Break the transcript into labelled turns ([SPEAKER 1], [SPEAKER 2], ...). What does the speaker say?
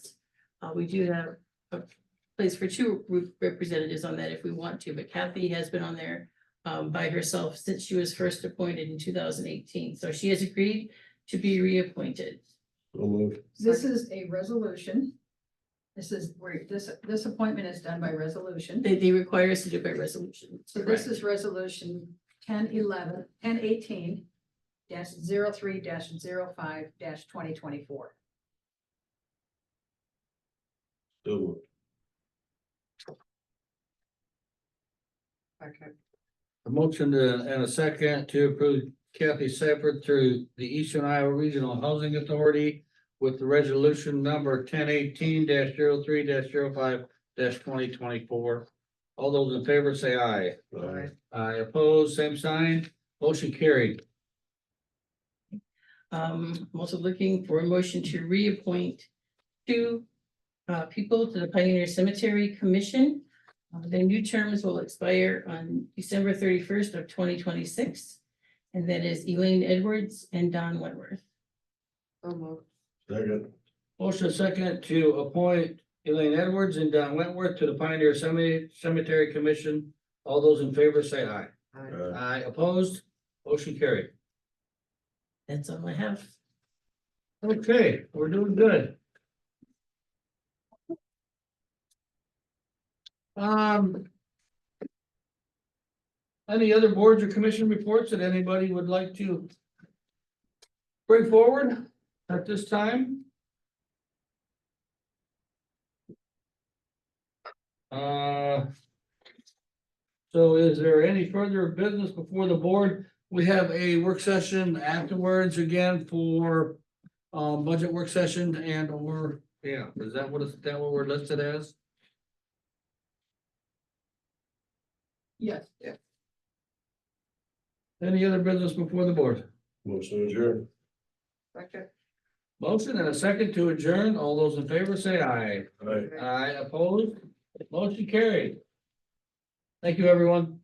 [SPEAKER 1] Uh, we do have a place for two re- representatives on that if we want to, but Kathy has been on there um, by herself since she was first appointed in two thousand eighteen, so she has agreed to be reappointed.
[SPEAKER 2] So moved.
[SPEAKER 3] This is a resolution. This is where, this, this appointment is done by resolution.
[SPEAKER 1] They, they require us to do it by resolution.
[SPEAKER 3] So this is resolution 1011 1018 dash zero three dash zero five dash twenty twenty-four.
[SPEAKER 2] So moved.
[SPEAKER 4] A motion to- and a second to approve Kathy Seifert through the Eastern Iowa Regional Housing Authority with the resolution number ten eighteen 3 5 twenty twenty-four. All those in favor say aye.
[SPEAKER 2] Aye.
[SPEAKER 4] Aye opposed, same sign, motion carried.
[SPEAKER 1] Um, I'm also looking for a motion to reappoint two uh, people to the Pioneer Cemetery Commission. Uh, Their new terms will expire on December thirty-first of twenty twenty-six. And that is Elaine Edwards and Don Wentworth.
[SPEAKER 2] Second.
[SPEAKER 4] Motion second to appoint Elaine Edwards and Don Wentworth to the Pioneer Cemetery Cemetery Commission. All those in favor say aye.
[SPEAKER 2] Aye.
[SPEAKER 4] Aye opposed, motion carried.
[SPEAKER 1] That's all I have.
[SPEAKER 4] Okay, we're doing good. Um. Any other boards or commission reports that anybody would like to? Bring forward at this time? Uh. So is there any further business before the board? We have a work session afterwards again for um, budget work session and or, yeah, is that what is, that what we're listed as?
[SPEAKER 3] Yes.
[SPEAKER 4] Any other business before the board?
[SPEAKER 2] Motion adjourned.
[SPEAKER 4] Motion and a second to adjourn. All those in favor say aye.
[SPEAKER 2] Aye.
[SPEAKER 4] Aye opposed, motion carried. Thank you, everyone.